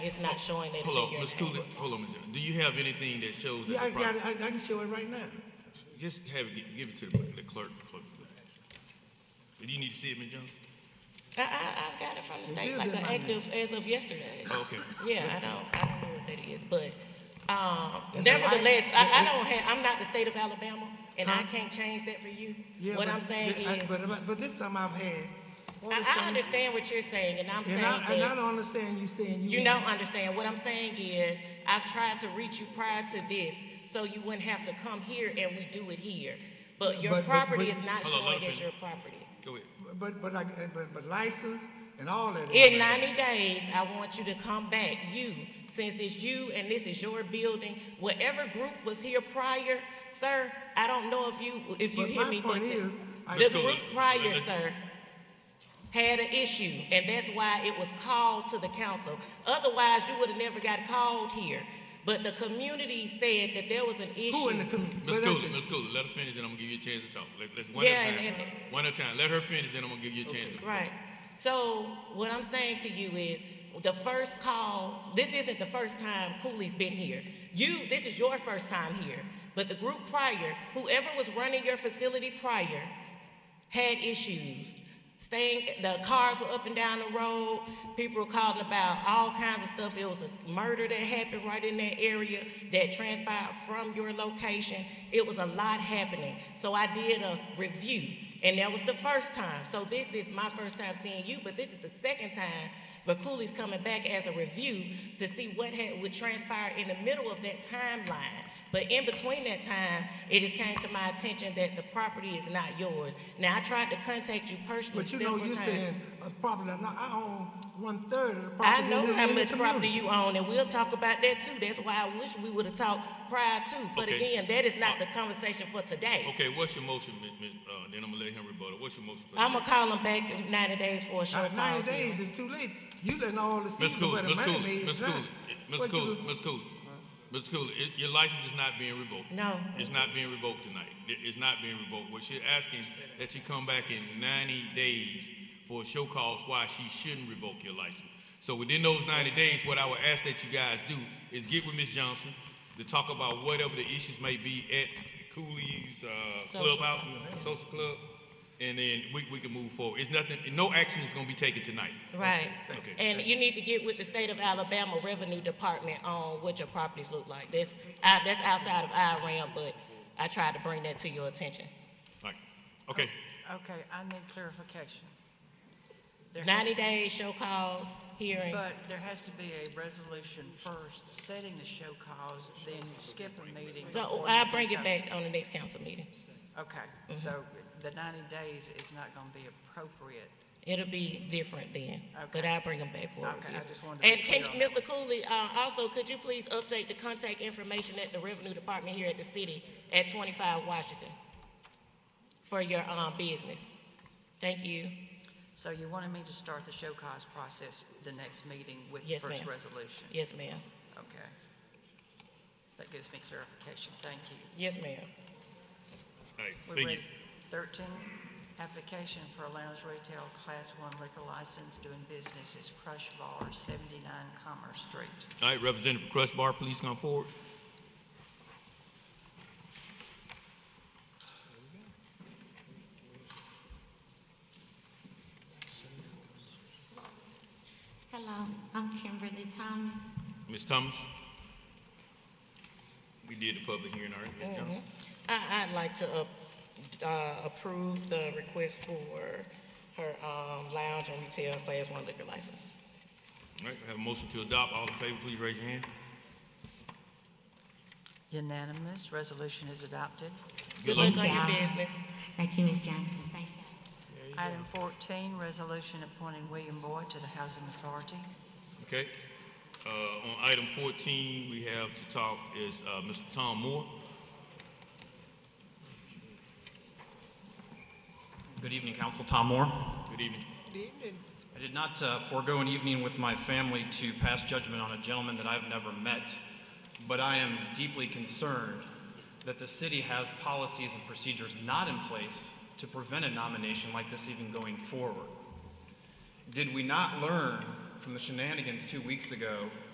It's not showing that Hold on, figure. Ms. Cooley, hold on, Ms. Jones. Do you have anything that shows Yeah, that I the got property? it, I, I can show it right now. Just have it, gi- give it to the the clerk. clerk, clerk. Do you need to see it, Ms. Jones? I, I, I've got it from the It state, is like in an my active as of yesterday. Oh, Okay. Yeah, I don't, I don't know what that is, but, um, That's nevertheless, all right. I, I don't have, I'm not the state of Alabama, and I Huh? can't change that for you. Yeah, What but- I'm saying yeah, I- is, But, but, but this time I've had. I, I understand what you're saying, and I'm saying And I, and I that don't understand you saying you. you don't understand. What I'm saying is, I've tried to reach you prior to this, so you wouldn't have to come here and we do it here. But your But- but- property but- is not Hold on, let showing me as your finish. property. Go ahead. But, but I, but, but license and all that. In 90 days, I want you to come back, you, since it's you and this is your building. Whatever group was here prior, sir, I don't know if you, if you But hear my me. point but the- is, I- The Let's go. group prior, Let's- sir, had an issue, and that's why it was called to the council. Otherwise, you would have never got called here. But the community said that there was an issue. Who in the community? Ms. Cooley, Ms. Cooley, let her finish, then I'm gonna give you a chance to talk. Let, let's, one Yeah, at a and- time. One at a time. Let her finish, then I'm gonna give you a chance. to- Right. So what I'm saying to you is, the first call, this isn't the first time Cooley's been here. You, this is your first time here. But the group prior, whoever was running your facility prior, had issues. Staying, the cars were up and down the road. People were calling about all kinds of stuff. It was a murder that happened right in that area that transpired from your location. It was a lot happening. So I did a review, and that was the first time. So this is my first time seeing you, but this is the second time Vakuli's coming back as a review to see what had, would transpire in the middle of that timeline. But in between that time, it has came to my attention that the property is not yours. Now, I tried to contact you personally But you know, several you're times. saying a property, no, I own one third of the property. I in know the- how in the much property community. you own, and we'll talk about that too. That's why I wish we would have talked prior to. But Okay. Uh, again, that is not the conversation for today. Okay, what's your motion, Ms., Ms., uh, then I'm gonna let him rebuttal. What's your motion? for I'm that? gonna call them back in ninety days for a Uh, short pause. Ninety days is too late. You letting all the Ms. season Cooley, where the Ms. money Cooley, made Ms. is Cooley, not. Ms. What you Cooley, do- Ms. Cooley. Ms. Cooley, it- your license is not being revoked. No. It's not being revoked tonight. It- It's not being revoked. What she's asking is that you come back in ninety days for a show cause why she shouldn't revoke your license. So within those ninety days, what I would ask that you guys do is get with Ms. Johnson to talk about whatever the issues may be at Cooley's, uh, Social. clubhouse, social club, and then we, we can move forward. It's nothing, no action is gonna be taken tonight. Right. Okay, And you need to get with the state of Alabama Revenue Department on what your properties look like. That's, out- that's outside of our realm, but I tried to bring that to your attention. Right. Okay, Okay, I need clarification. There has- Ninety days, show cause, hearing. But there has to be a resolution first, setting the show cause, then you skip a meeting. So before you I'll can bring it Mm-hmm. come. back on the next council meeting. Okay, so the 90 days is not going to be appropriate. It'll be different then, but Okay. I'll bring them back for Okay, review. I just wanted to be And can, clear on Mr. that Cooley, uh, also, could you please update the contact information at the Revenue Department here at the city at twenty-five Washington for your, um, business? Thank you. So you wanted me to start the show cause process the next meeting with the Yes, first ma'am. resolution? Yes, ma'am. Okay. That gives me clarification, thank you. Yes, ma'am. all right, We're thank you. ready. 13, application for a lounge retail Class 1 liquor license doing business as Crush Bar, 79 Commerce Street. All right, Representative Crush Bar, please come forward. Hello, I'm Kimberly Thomas. Ms. Thomas? We did the public hearing, all right, Ms. Johnson? Mm-hmm. I, I'd like to, uh, uh, approve the request for her, um, lounge and retail class one liquor license. All right, we have a motion to adopt. All in favor, please raise your hand. Unanimous, resolution is adopted. Good luck on your business. Thank you, Ms. Johnson, thank you. Item 14, resolution appointing William Boyd to the Housing Authority. Okay. Uh, on item fourteen, we have to talk is, uh, Mr. Tom Moore. Good evening, Council. Tom Moore. Good evening. I did not uh, forego an evening with my family to pass judgment on a gentleman that I've never met, but I am deeply concerned that the city has policies and procedures not in place to prevent a nomination like this even going forward. Did we not learn from the shenanigans two weeks ago